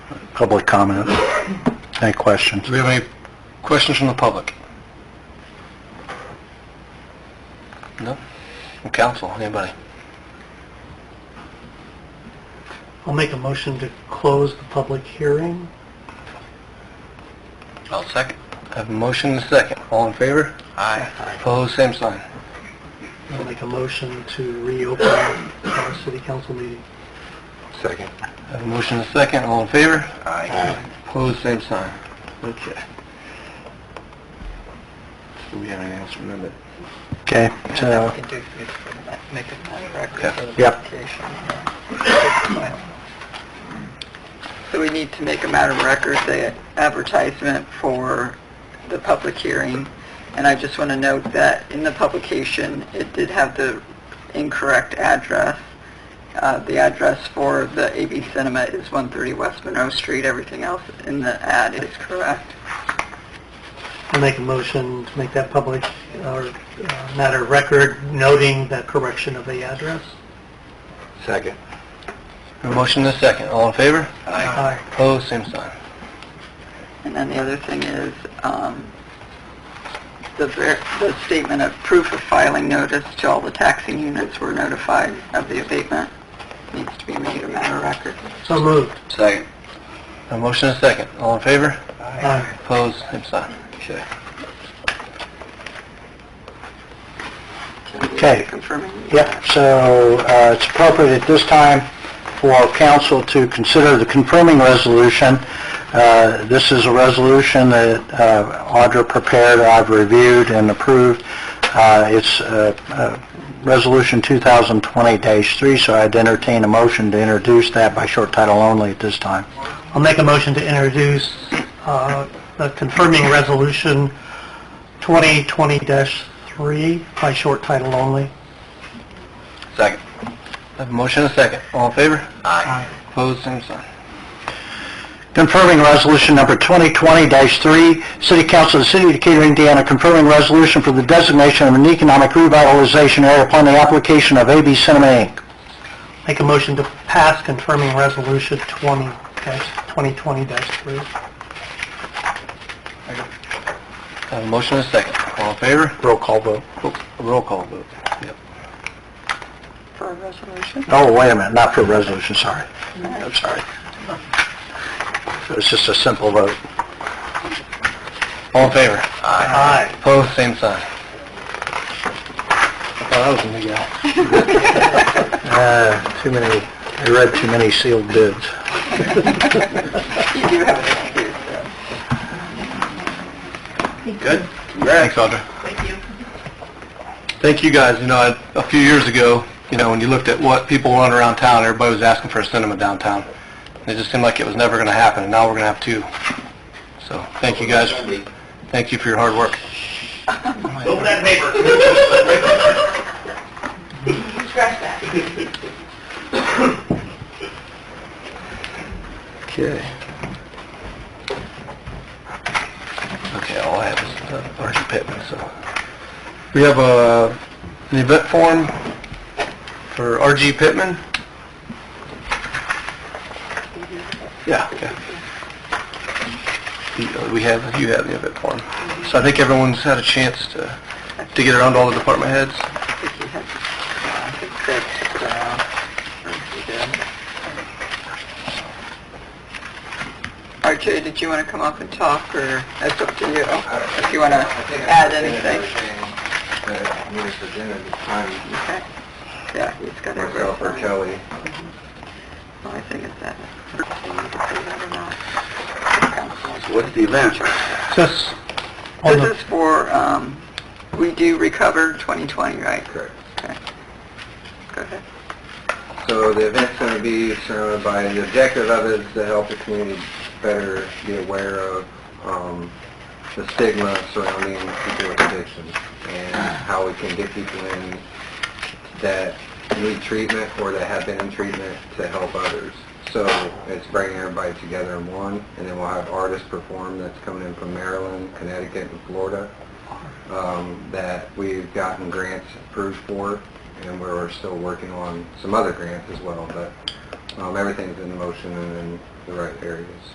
public comment. Any questions? Do we have any questions from the public? No? From council, anybody? I'll make a motion to close the public hearing. I'll second. I have a motion and a second. All in favor? Aye. Opposed, same sign. I'll make a motion to reopen our city council meeting. Second. I have a motion and a second. All in favor? Aye. Opposed, same sign. Okay. Do we have anything else from them? Okay, so... Make a Yeah. Yep. So we need to make a matter of record, the advertisement for the public hearing. And I just want to note that in the publication, it did have the incorrect address. Uh, The address for the AV Cinema is 130 West Monroe Street. Everything else in the ad is correct. I'll make a motion to make that public, or uh, matter of record, noting the correction of the address. Second. motion and a second. All in favor? Aye. Opposed, same sign. And then the other thing is, um, the ver- the statement of proof of filing notice to all the taxing units were notified of the abatement needs to be made a matter of record. So moved. Second. A motion and a second. All in favor? Aye. Opposed, same sign. Okay. Okay. Confirming. Yep, so uh, it's appropriate at this time for council to consider the confirming resolution. Uh, This is a resolution that uh, Audra prepared, I've reviewed and approved. Uh, It's uh, uh, Resolution 2020-3, so I'd entertain a motion to introduce that by short title only at this time. I'll make a motion to introduce uh, the confirming resolution 2020-3 by short title only. Second. Have a motion and a second. All in favor? Aye. Opposed, same sign. Confirming Resolution Number 2020-3, City Council of the City of Decatur, Indiana, confirming resolution for the designation of an economic revitalization area upon the application of AB Cinema Inc. Make a motion to pass confirming resolution 20-2020-3. Have a motion and a second. All in favor? Roll call vote. Roll call vote. Yep. For a resolution? Oh, wait a minute, not for a resolution, sorry. I'm sorry. It's just a simple vote. All in favor? Aye. Opposed, same sign. I thought I was a new guy. Uh, Too many, I read too many sealed bids. You do have an excuse, though. Good. Thanks, Audra. Thank you. Thank you guys. You know, I- a few years ago, you know, when you looked at what people wanted around town, everybody was asking for a cinema downtown. And It just seemed like it was never going to happen, and now we're going to have two. So, thank you guys. Thank you for your hard work. Open that paper. Okay. Okay, all I have is uh, Archie Pittman, so. We have a, an event form for RG Pittman? Yeah, okay. The, uh, We have, you have the event form. So I think everyone's had a chance to, to get around all the department heads? I think you had, I think Craig, uh, or you did. RJ, did you want to come up and talk, or it's up to you, if you want to add anything? Okay. Yeah, he's got it. Kelly. Well, I think it's that. What's the event? Just on This the, is for, um, we do recover 2020, right? Correct. Okay. Go ahead. So the event's going to be surrounded by, the objective of it is to help the community better be aware of um, the stigma surrounding people with addiction and how we can get people in that need treatment or that have been in treatment to help others. So it's bringing everybody together in one, and then we'll have artists perform that's coming in from Maryland, Connecticut, and Florida um, that we've gotten grants approved for, and we're still working on some other grants as well, but um, everything's in motion and in the right areas.